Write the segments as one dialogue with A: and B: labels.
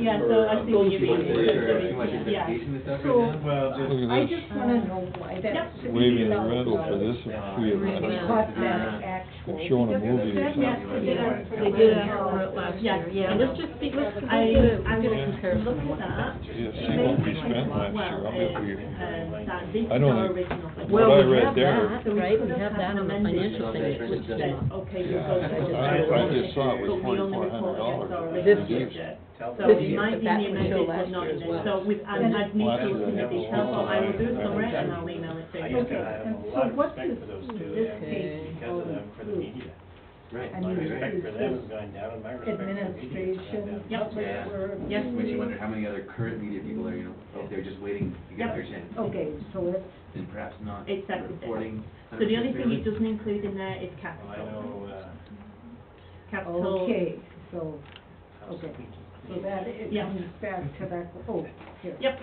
A: Yeah, so I think you mean-
B: uh, Too much
A: Yeah.
B: identification with stuff right
C: So-
B: now?
D: Well,
E: Look
D: just,
E: at
C: I
E: this,
C: just wanna know why that's.
A: Yep.
E: waving the rental for this free of
C: What
E: rental.
C: that actual.
E: They're showing a movie or
A: Yes,
E: something.
A: they did our,
C: Yeah.
A: they did
C: Yeah.
A: our, last year, yeah,
C: Yeah.
A: let's just be, let's, I, I'm gonna compare it up.
E: Yeah, see what we spent last year, I'll bet we,
A: I
E: I don't think-
A: Well,
E: what
A: we
E: I
A: have
E: read there,
A: that, right, we have that on the financial
B: statement, which says,
A: okay,
E: you go to the- I- I just saw it was
A: This
E: $2,400 This
A: year.
E: year.
A: So
C: This
A: it
C: year,
A: might
C: but
A: be
C: that
A: the
C: was
A: amended
C: still last
A: footnote
C: year
A: in
C: as
A: it,
C: well.
A: so with, I I need
E: Last
A: to
E: year,
A: look
E: they
A: at
E: had
A: these,
E: a
A: so I will do
E: lot of-
A: some rent and I'll email it to
D: I
A: you.
D: guess I have a lot of respect for those two,
C: this Oh,
D: and
C: case
D: because of them for the media.
B: Right.
C: I
D: My
C: mean,
D: respect for them
C: it's
D: has
C: just
D: gone down, and my respect for the media has gone
C: Administration.
D: down.
A: Yep.
B: Yeah.
C: whatever.
A: Yes.
B: Makes you wonder how many other current media people are, you know, out there just waiting to get their chance.
C: Okay, so it's,
B: And perhaps not
A: Exactly.
B: reporting.
A: So the only thing it doesn't include in there is
D: Well, I
A: capital,
D: know, uh,
A: capital.
C: okay, so,
D: House
C: Okay.
D: of Peaches.
C: so that, it
A: Yeah.
C: comes back to that, oh, here.
A: Yep,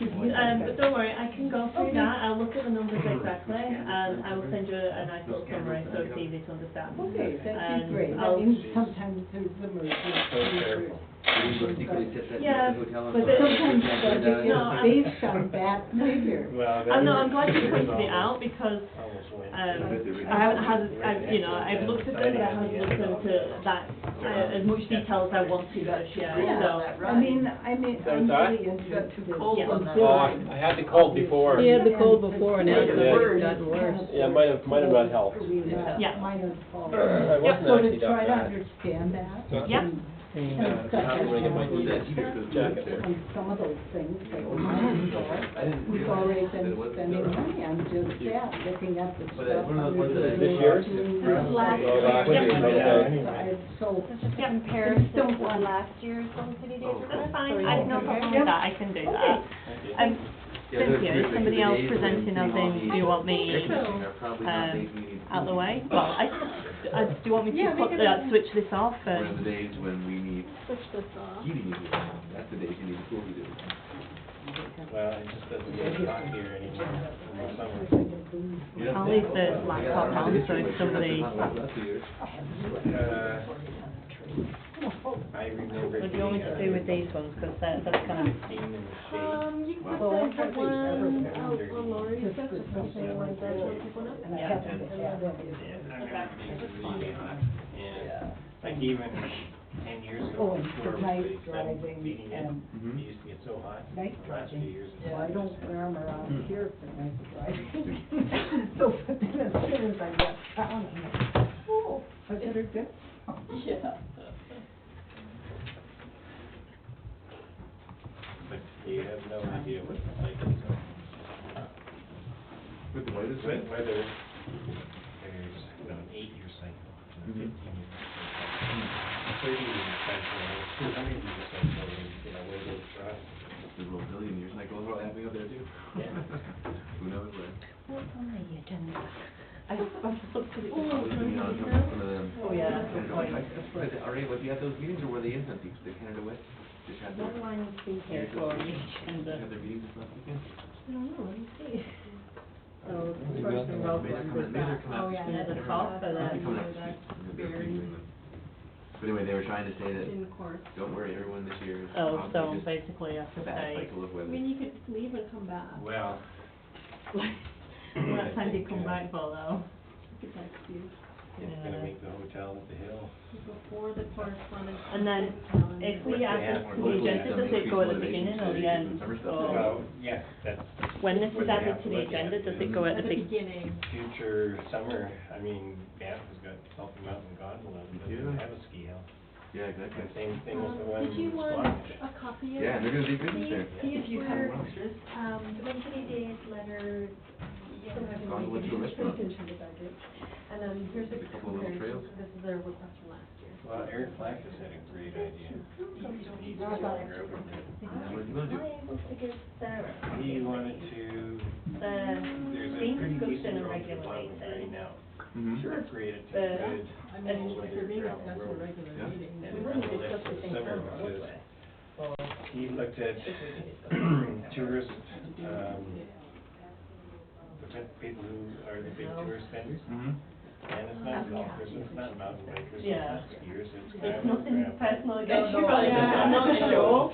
A: Um, but don't worry, I can go through
C: Okay.
A: that, I'll look at the numbers exactly, and I will send you a nice little summary so it's easy to understand.
C: Okay, that'd
A: Um,
C: be great, I
A: I'll-
C: mean, sometimes there's the merger.
D: careful.
B: Did you secretly set that up
A: Yeah,
B: at the hotel? on
A: but
B: Friday? Turn
C: Sometimes
B: that
C: the
B: down?
A: No, I-
C: budget is based on that figure.
D: Well, that
A: I'm not, I'm glad you
D: was
A: pointed
D: almost-
A: it out, because,
D: Almost went.
A: um,
B: Yeah.
A: I haven't had, I've, you know, I've looked at it, but I haven't looked into that, uh, as much detail as I want to this year, so.
C: I mean, I mean,
F: So
C: I'm
F: it's all right?
C: really interested. Too
A: cold on that
F: Oh, I I had the cold before.
G: Yeah. had the cold before and now
F: it's
G: gotten worse.
F: Yeah, might have- might have not helped.
A: Yeah.
C: Might have helped.
F: I wasn't
C: So
F: actually
C: to
F: that
C: try to
F: bad.
C: understand that.
A: Yep,
F: Yeah,
C: And
F: I'm gonna get my
C: such
B: Yeah,
C: as-
B: he just goes back there.
C: on some of those things, like
B: I didn't
C: we've
B: realize
C: already
B: that
C: been
B: it wasn't
C: spending
B: done.
C: money on just that, looking at the
B: But it's
C: stuff.
B: one of those ones that
C: under
B: I-
C: the
F: This year's?
C: doors,
B: Yeah.
H: Last
B: Oh,
H: year.
B: last
D: Yeah.
B: year.
D: Yeah.
C: outside, So,
H: It's just a
A: Yep.
H: comparison
C: Don't
H: to
C: want-
H: last year's Golden City Days.
B: Oh,
A: that's fine, I can help
C: Yep.
A: with that, I can do that.
C: Okay.
D: Okay.
A: Um,
B: Yeah, they're
A: Cynthia, is
B: terrific.
A: somebody
B: The
A: else
B: days when
A: presenting
B: all
A: nothing,
B: the-
A: do you want me,
B: Technicians are probably not
A: um,
B: days we need-
A: out the way? Well, I, I, do you want me
H: Yeah,
A: to
H: we
A: put,
H: can-
A: uh, switch this off
B: One of
A: and?
B: the days when we need
H: Switch this off.
B: heating units, that's the days you need a cool heater.
D: Well, it just doesn't get hot here anymore in the summer.
B: Yeah.
A: I'll leave the laptop on, so if somebody-
D: Uh, I remember
A: What do you want me to do with these ones, because they're, that's kind of,
D: Fifteen in the shade.
H: Um, you can put
C: Well,
H: that
C: that's
H: for
C: what
H: one,
C: they-
H: oh, well, Lori,
C: Just
H: that's
C: for
H: just
C: something
H: something
C: like
H: like
C: that.
H: that, we'll pick one up.
C: and I
D: Yeah.
C: have to add
D: Yeah,
C: everything.
D: I remember being really hot, and like even ten years
C: Oh,
D: ago,
C: and
D: before
C: the night
D: we started
C: driving
D: heating
C: and-
D: it, it used to get so hot.
C: Night
D: the last few
C: driving,
D: years it's
C: well, I
D: just-
C: don't wear 'em around here for night driving. So, but then as soon as I get down, I'm like, oh, I better get some.
G: Yeah.
D: But you have no idea what it's like, so.
B: With the white is
D: Wet weather, there's about an eight-year cycle, and a
B: Mhm.
D: fifteen-year
B: hmm,
D: cycle, thirty-year cycle, two hundred-year cycle, and, you know, where those dry.
B: There's a little billion years, like, well, what happening up there too?
D: Yeah.
B: Who knows, like.
A: what on the agenda? I I've looked at it.
B: Probably been on some some of them.
A: Oh, yeah, that's a good point.
B: I'm surprised, that RA, was he at those meetings, or were they in some people, did Canada West just have their,
H: That one will be
A: Here
H: here.
A: for you, and the,
B: have their meetings this last weekend?
H: I don't know, let me see. Oh,
A: so,
E: Maybe
A: first
E: that's-
A: and roll
B: Maybe they're
A: one
B: coming-
A: was
B: maybe they're
A: that.
B: coming out
A: Oh, yeah,
B: this week.
A: there's a
B: They're
A: call for
B: coming out-
A: that,
B: they're coming out
A: you know,
B: this week.
A: that's
B: They're
A: uh, very-
B: previewing them. But anyway, they were trying to say that,
H: In court.
B: don't worry, everyone this year is
A: Oh, so
B: probably just
A: basically I have
B: a
A: to
B: bad
A: say,
B: cycle of
H: I
B: weather.
H: mean, you could leave and come back.
D: Well,
A: what time do you
D: I
A: come
D: think, uh,
A: back for though?
H: It's like you,
D: it's gonna
A: Yeah.
D: make the hotel at the hill.
H: before the correspondence.
A: And then
H: calendar.
A: If we
D: What
A: add
D: they
A: this
D: have
A: to
D: for
A: the
D: local
A: agenda, does it
B: increased
A: go at the
B: motivation
A: beginning
B: to
A: or the
B: do
A: end?
B: summer
H: Oh.
B: stuff.
A: Or
D: Well, yes, that's
A: when this
D: what
A: is
D: they
A: added
D: have
A: to
D: to
A: the
D: look at
A: agenda, does it go
H: At
A: at
H: the
A: the big?
H: beginning.
D: future summer, I mean, Banff has got Salty Mountain Gondola, but doesn't
B: Yeah.
D: have a ski hill.
B: Yeah,
D: And
B: exactly.
D: same thing
H: Um,
D: with the one
H: Did you
D: in
H: want
D: Squamish.
H: a copy of?
B: Yeah, and they're gonna do
H: these?
B: business there.
H: See if you have,
B: Wow.
H: um, Wednesday days, letters, still having.
B: Gone to a restaurant.
H: And then here's a
B: There's a couple of little
H: comparison,
B: trails.
H: this is their request from last year.
D: Well, Eric Black has had a great idea. He's, he's going over there.
B: And what are you gonna do?
A: Oh,
H: I able to give Sarah? a copy
D: He
H: of
D: wanted
H: these?
D: to, there's
A: The
D: a
A: things
D: pretty
A: goes in
D: decent
A: a
D: road to
A: regular
D: Bottom right
A: meeting.
D: now.
B: Mhm.
D: Created to
A: The-
D: good,
A: I mean,
D: all
A: for
D: weather
A: me,
D: gravel
A: that's a
D: road.
B: Yeah.
D: And the
A: We wouldn't
D: recollection
A: discuss the
D: of
A: thing
D: summer
A: from
D: months
A: this
D: is
H: oh,
A: way.
D: He looked at um, tourist, um, the pe- people who are the big tourist spenders,
B: Mhm.
D: And it's not golfers, it's not mountain bikers, it's
A: Yeah.
D: not skiers, it's.
A: It's
D: campers,
A: nothing
D: campers.
A: personal
G: No,
A: against
G: no,
A: you, but
G: I-
A: I'm not sure.